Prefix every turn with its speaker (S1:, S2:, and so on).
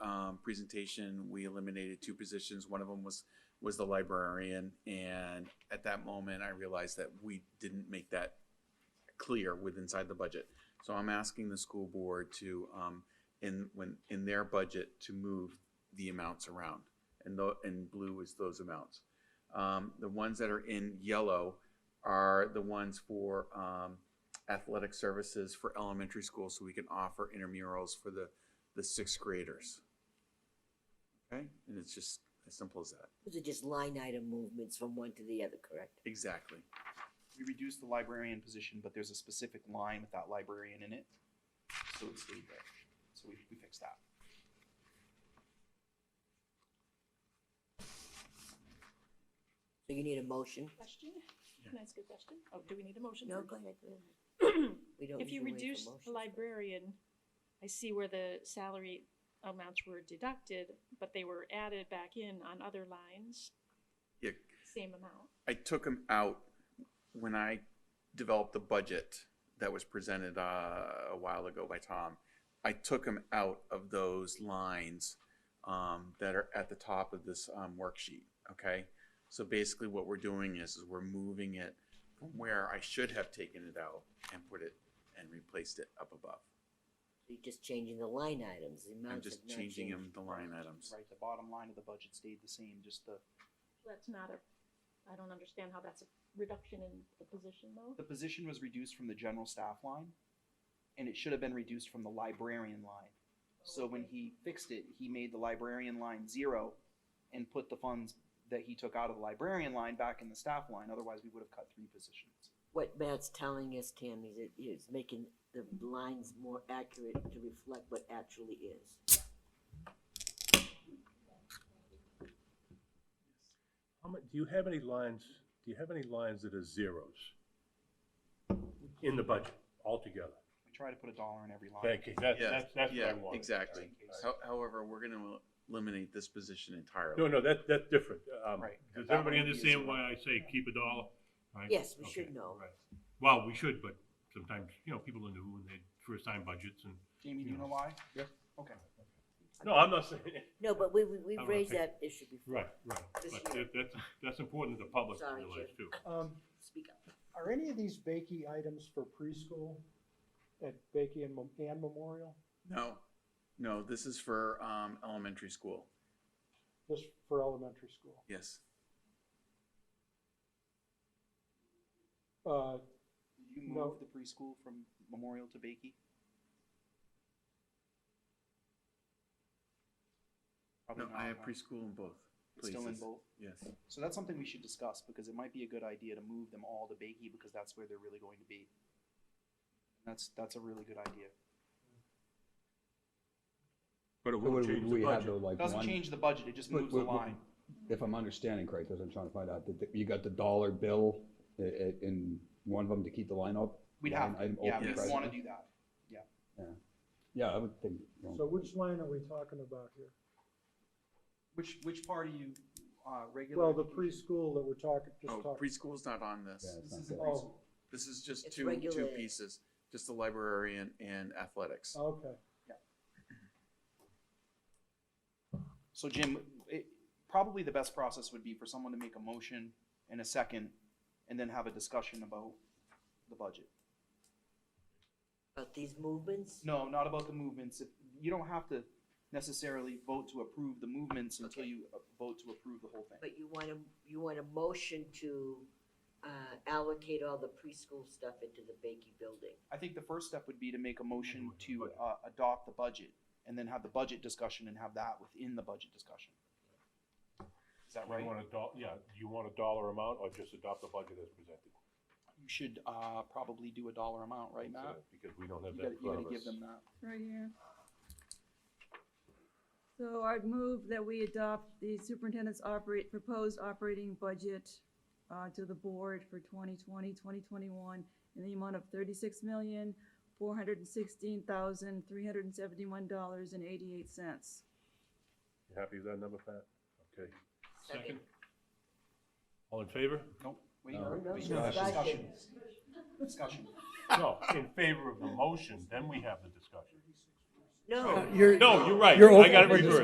S1: um, presentation, we eliminated two positions. One of them was, was the librarian. And at that moment, I realized that we didn't make that clear with inside the budget. So I'm asking the school board to, um, in, when, in their budget to move the amounts around. And the, and blue is those amounts. Um, the ones that are in yellow are the ones for, um, athletic services for elementary school so we can offer intramurals for the, the sixth graders. Okay, and it's just as simple as that.
S2: Those are just line item movements from one to the other, correct?
S1: Exactly.
S3: We reduced the librarian position, but there's a specific line with that librarian in it. So it stayed there. So we, we fixed that.
S2: So you need a motion?
S4: Question?
S1: Yeah.
S4: Can I ask a question? Oh, do we need a motion?
S2: No,
S4: first?
S2: go ahead. We don't
S4: If you
S2: usually wait for
S4: reduce the
S2: motions.
S4: librarian, I see where the salary amounts were deducted, but they were added back in on other lines,
S1: Yeah,
S4: same amount.
S1: I took them out when I developed the budget that was presented uh, a while ago by Tom. I took them out of those lines um, that are at the top of this um, worksheet, okay? So basically what we're doing is, is we're moving it from where I should have taken it out and put it and replaced it up above.
S2: You're just changing the line items, the
S1: I'm
S2: amounts have
S1: just
S2: not
S1: changing
S2: changed.
S1: them the line items.
S3: Right, the bottom line of the budget stayed the same, just the,
S4: That's not a, I don't understand how that's a reduction in the position though.
S3: the position was reduced from the general staff line. And it should have been reduced from the librarian line. So when he fixed it, he made the librarian line zero and put the funds that he took out of the librarian line back in the staff line. Otherwise, we would have cut three positions.
S2: What Matt's telling us, Tammy, is it is making the lines more accurate to reflect what actually is.
S5: How mu- do you have any lines, do you have any lines that are zeros in the budget altogether?
S3: We try to put a dollar in every line.
S5: Thank you, that's,
S1: Yeah,
S5: that's, that's what I
S1: yeah,
S5: wanted.
S1: Exactly.
S5: All right.
S1: How- However, we're gonna eliminate this position entirely.
S5: No, no, that, that's different. Um,
S3: Right.
S5: Does
S3: That
S5: everybody
S3: one we use
S5: understand
S3: a
S5: why
S3: lot.
S5: I say keep a dollar? Right?
S2: Yes, we
S5: Okay,
S2: should know.
S5: right. Well, we should, but sometimes, you know, people are new and they first time budgets and,
S3: Jamie, do you know why?
S5: Yeah.
S3: Okay.
S5: no, I'm not saying,
S2: No, but we, we we
S5: I'm
S2: raised
S5: Oh, okay.
S2: that issue before.
S5: right, right.
S2: This
S5: But
S2: year.
S5: that- that's, that's important to the public to
S2: Sorry,
S5: realize
S2: Jim.
S5: too.
S6: Um,
S2: Speak up.
S6: are any of these Bakey items for preschool at Bakey and Mem- and Memorial?
S1: No, no, this is for, um, elementary school.
S6: Just for elementary school?
S1: Yes.
S6: Uh,
S3: Did you
S6: No.
S3: move the preschool from Memorial to Bakey? Probably
S1: No, I
S3: not,
S1: have
S5: Uh-huh.
S3: huh?
S1: preschool in both
S3: It's
S1: places.
S3: Still in both.
S1: Yes.
S3: So that's something we should discuss because it might be a good idea to move them all to Bakey because that's where they're really going to be. That's, that's a really good idea.
S5: But it
S7: But
S5: won't
S7: would-
S5: change
S7: would
S5: the
S7: we have
S5: budget.
S7: though, like
S3: Doesn't
S7: one-
S3: change the budget, it just
S7: But-
S3: moves the
S7: but- but-
S3: line.
S7: If I'm understanding correct, that's what I'm trying to find out, that, that you got the dollar bill i- i- in one of them to keep the line up?
S3: We'd
S7: line
S3: have, to.
S7: item
S3: yeah,
S7: open
S3: we'd
S1: Yes.
S3: wanna
S7: presently?
S3: do that.
S7: Yeah, I would think, well,
S6: so which line are we talking about here?
S3: Which, which part are you, uh, regular?
S6: Well, the
S3: education?
S6: preschool that we're talking, just
S1: Oh,
S6: talking.
S1: preschool's not on this.
S7: Yeah.
S3: This is the
S6: Oh.
S3: preschool.
S1: This is just
S2: It's
S1: two, two
S2: regulated.
S1: pieces, just the librarian and athletics.
S6: Okay,
S3: So Jim, it, probably the best process would be for someone to make a motion in a second and then have a discussion about the budget.
S2: About these movements?
S3: No, not about the movements. If, you don't have to necessarily vote to approve the movements until
S2: Okay.
S3: you uh, vote to approve the whole thing.
S2: But you want a, you want a motion to, uh, allocate all the preschool stuff into the Bakey building.
S3: I think the first step would be to make a motion
S5: Anyway,
S3: to,
S5: budget.
S3: uh, adopt the budget and then have the budget discussion and have that within the budget discussion. Is that right?
S5: You want a doll, yeah, do you want a dollar amount or just adopt the budget as presented?
S3: You should, uh, probably do a dollar amount, right, Matt?
S5: Because we don't have
S3: You
S5: that
S3: gotta, you
S5: in front
S3: gotta
S5: of
S3: give
S5: us.
S3: them that.
S8: Right here. So I'd move that we adopt the superintendent's operate, proposed operating budget uh, to the board for 2020, 2021 in the amount of thirty-six million, four hundred and sixteen thousand, three hundred and seventy-one dollars and eighty-eight cents.
S5: You happy with that number, Pat? Okay.
S2: Second.
S5: Second? All in favor?
S3: Nope. Wait,
S7: No.
S3: wait,
S2: No,
S3: wait,
S7: no,
S3: discussion. Discussion.
S5: No, in favor of the motion, then we have the discussion.
S2: No.
S5: No, you're right.
S7: You're
S5: I got it
S7: open for
S5: reversed.